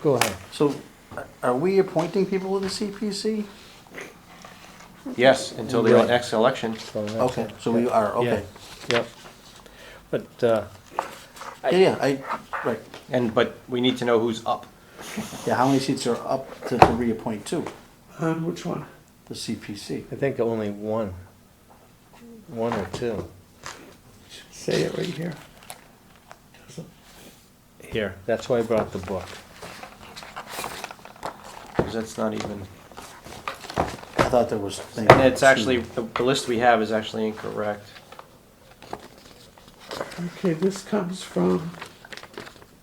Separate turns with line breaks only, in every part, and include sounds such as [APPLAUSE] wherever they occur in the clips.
Go ahead.
So a- are we appointing people to the CPC?
Yes, until the
Right.
next election.
So that's
Okay,
it.
so we are,
Yeah.
okay.
Yep. But, uh,
Yeah, yeah, I, right.
And, but we need to know who's up.
Yeah, how many seats are up to, to reappoint to
On Um, which one?
the CPC?
I think only one, one or two.
Say it right here.
Here, that's why I brought the book.
Because that's not even,
I thought there was.
and it's actually, the the list we have is actually incorrect.
Okay, this comes from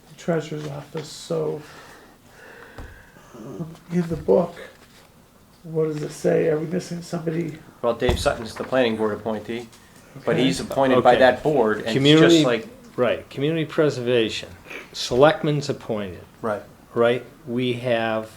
the treasurer's office, so um, in the book, what does it say? Are we missing somebody?
Well, Dave Sutton's the planning board appointee, but he's appointed by
Okay.
that board, and it's
Community-
just like,
Right, community preservation, selectmen's appointed,
Right.
right? We have,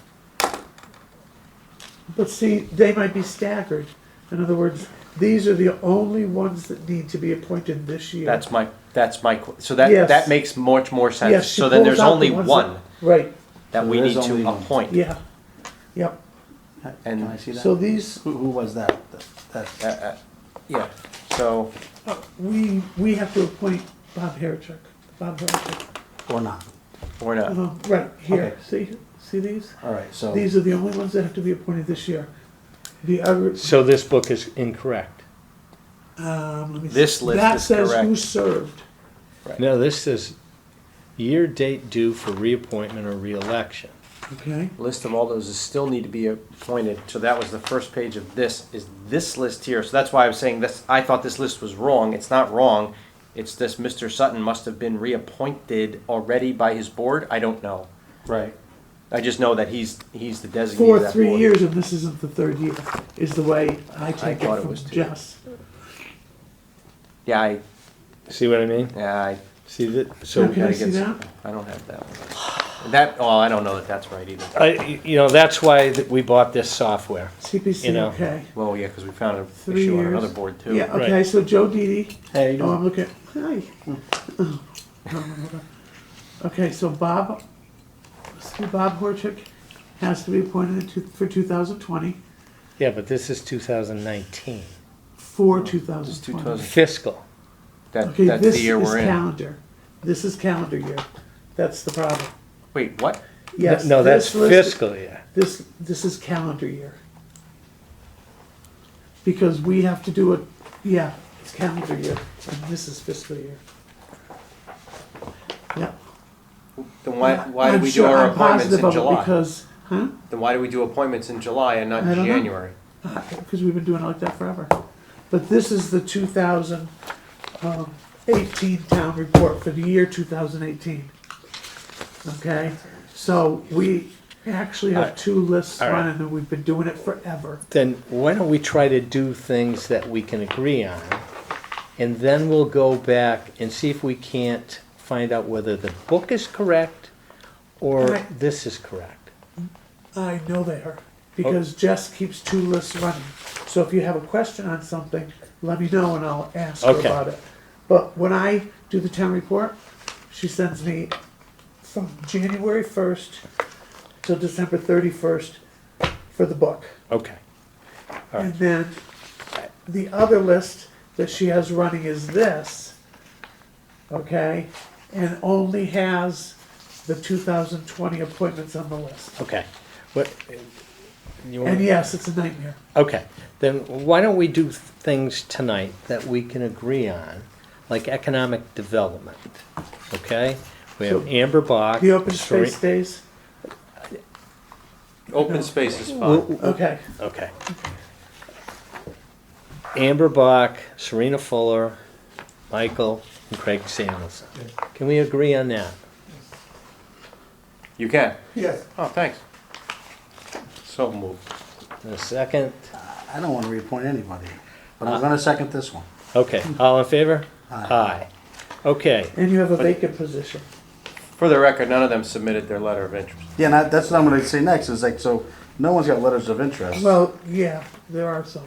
But see, they might be staggered. In other words, these are the only ones that need to be appointed this year.
that's my, that's my, qu- so that,
Yes.
that makes much more sense.
Yes, she
So then there's
pulls out the
only
ones
one
that- Right,
that
So
we
there
need
is only
to
one.
appoint.
yeah, yep.
Can
And
I see
So
that?
these,
Who, who was that? That,
Uh,
that,
uh, Yeah, so,
uh, we, we have to appoint Bob Herrick, Bob Herrick.
or not?
or not.
Um, right, here,
Okay.
see, see these?
All right, so.
These are the only ones that have to be appointed this year. The other,
so this book is incorrect.
um, let me see.
This list
That
is
says who
correct.
served.
No, this is year date due for reappointment or reelection.
Okay,
List of all those is still need to be appointed, so that was the first page of this, is this list here. So that's why I was saying this, I thought this list was wrong. It's not wrong. It's this Mr. Sutton must have been reappointed already by his board. I don't know.
Right.
I just know that he's, he's the designee
for
of that
three
board.
years, and this isn't the third year, is the way I take
thought
it
it
from
was two.
Jess.
Yeah, I,
See what I mean?
yeah, I,
See that, so.
Okay, I
gotta
see
get
that?
I don't have that one. That, oh, I don't know that that's right either.
I, you know, that's why that we bought this software. You
CPC,
know,
okay.
Well, yeah, because we found an
Three
issue on
years.
another board too.
Yeah,
right.
okay, so Joe Didi.
Hey, you
Oh,
know,
I'm looking, hi. [LAUGHS] Okay, so Bob, so Bob Horchick has to be appointed to, for two thousand twenty,
Yeah, but this is two thousand nineteen,
for two
It's
thousand twenty.
2020.
fiscal.
That,
Okay,
that's
this
the
is
year we're in.
calendar. This is calendar year. That's the problem.
Wait, what?
Yes.
No, that's
this list-
fiscal year.
This, this is calendar year. Because we have to do it, yeah, it's calendar year, and this is fiscal year. Yeah.
Then why, why do
I'm
we do
sure-
our
I'm
appointments
positive
in
of it
July?
Because, huh?
Then why do we do appointments in July and not
I don't know.
January?
Because we've been doing it like that forever. But this is the two thousand um, eighteen town report for the year two thousand eighteen. Okay, so we actually have two lists
All right.
running and we've been doing it forever.
Then why don't we try to do things that we can agree on? And then we'll go back and see if we can't find out whether the book is correct or
Right.
this is correct.
I know they are, because Jess keeps two lists running. So if you have a question on something, let me know and I'll ask her
Okay.
about it. But when I do the town report, she sends me from January first till December thirty-first for the book.
Okay.
And then the other list that she has running is this, okay? And only has the two thousand twenty appointments on the list.
Okay. What, you
And
want,
yes, it's a nightmare.
okay, then why don't we do things tonight that we can agree on, like economic development, okay? We have
So,
Amber Bach.
The open
Seren-
space days,
Open space is fine.
We'll-
okay,
Oh, Okay. Amber Bach, Serena Fuller, Michael, and Craig Samuelson. Can we agree on that?
You can.
Yes,
Oh, thanks. So moved.
In a second?
I don't want to reappoint anybody, but
Uh.
I'm going to second this one.
Okay, all in favor?
Aye.
Okay,
and you have a vacant position.
For the record, none of them submitted their letter of interest.
Yeah, and I- that's what I'm going to say next, is like, so no one's got letters of interest.
Well, yeah, there are some.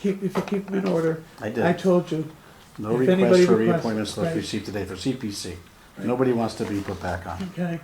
Keep, if you keep them in order.
I did.
I told you,
No
If
requests
anybody
for
requests-
reappointments left
right.
received today for CPC. Nobody wants to be put back on.
okay?